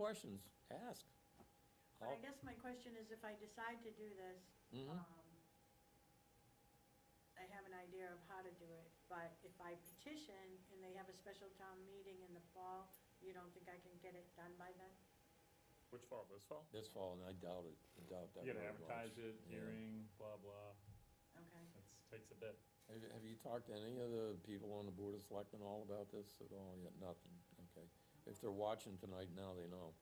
questions, ask. But I I'll- guess my question is if I decide to do this, Mhm. um, I have an idea of how to do it, but if I petition and they have a special town meeting in the fall, you don't think I can get it done by then? Which fall, this fall? This fall, and I doubt it, I doubt that. You gotta will advertise launch. it, Yeah. hearing, blah, blah, Okay. that's, takes a bit. Have, have you talked to any of the people on the Board of Selectmen all about this at all yet? Nothing, okay. If they're watching tonight now, they know.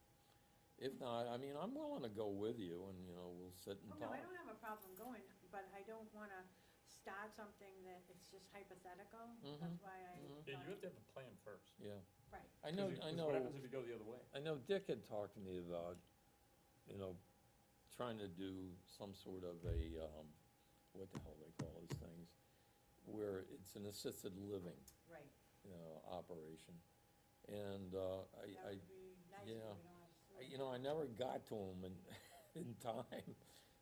If not, I mean, I'm willing to go with you and, you know, we'll sit and Oh, no, talk. I don't have a problem going, but I don't wanna start something that it's just hypothetical, Mhm. that's why I. Mhm. Yeah, you have thought- to have a plan first. Yeah, Right, I 'Cause know, you- I 'cause know. What happens if you go the other way? I know Dick had talked to me about, you know, trying to do some sort of a, um, what the hell they call those things, where it's an assisted living, right, you know, operation. And, uh, that I, I, would be nice if we yeah. don't have. I- you know, I never got to them in, in time,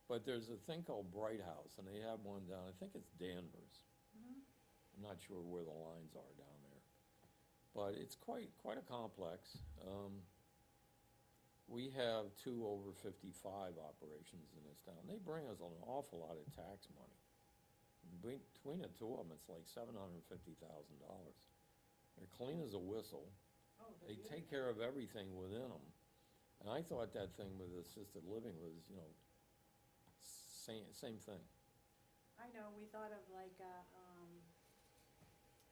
but there's a thing called Bright House, and they have one down, I think it's Danvers. Mhm. I'm not sure where the lines are down there, but it's quite, quite a complex. Um, we have two over fifty-five operations in this town. They bring us an awful lot of tax money. Between, between the two of them, it's like seven hundred and fifty thousand dollars. They're clean as a whistle. Oh, they're They take beautiful. care of everything within them. And I thought that thing with assisted living was, you know, same, same thing. I know, we thought of like, uh, um,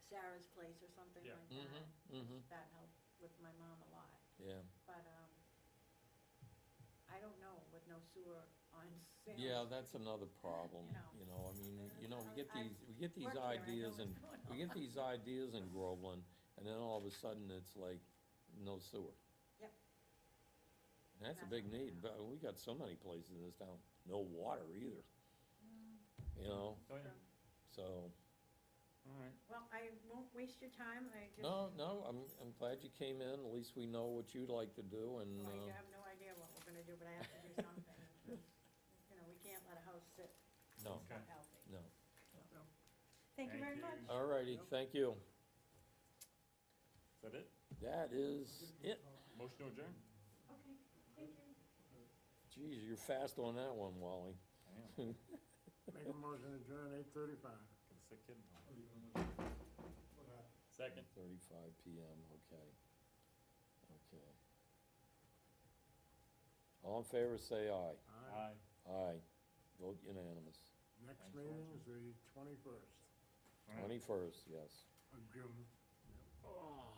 Sarah's Place or something Yeah. like that. Mm-hmm. That helped with my mom a lot, Yeah. but, um, I don't know with no sewer on sale. Yeah, that's another problem, You know. you know, I mean, you know, we get I- I these, we get these work there, I know ideas and, what's going we get on. these ideas in Groveland, and then all of a sudden, it's like, no sewer. Yep. And that's a That's big what we need, have. but we got so many places in this town, no water either, you know, Oh, yeah, so, alright. Well, I won't waste your time, I just. no, no, I'm, I'm glad you came in, at least we know what you'd like to do, and, Well, Oh, uh, I have no idea what we're gonna do, but I have to do something. You know, we can't let a house sit, no, it's not healthy. no. Thank you Thank very you. much. All righty, thank you, Is that it? that is it, Motion to adjourn? Okay, thank you. geez, you're fast on that one, Wally. I am. Make a motion to adjourn eight thirty-five. Get a sick kid in the hall. Second. Thirty-five PM, okay. Okay. All in favor, say aye. Aye. Aye. Vote unanimous. Next Thanks, meeting Walter. is the twenty-first All right. Twenty-first, yes. of June. Oh.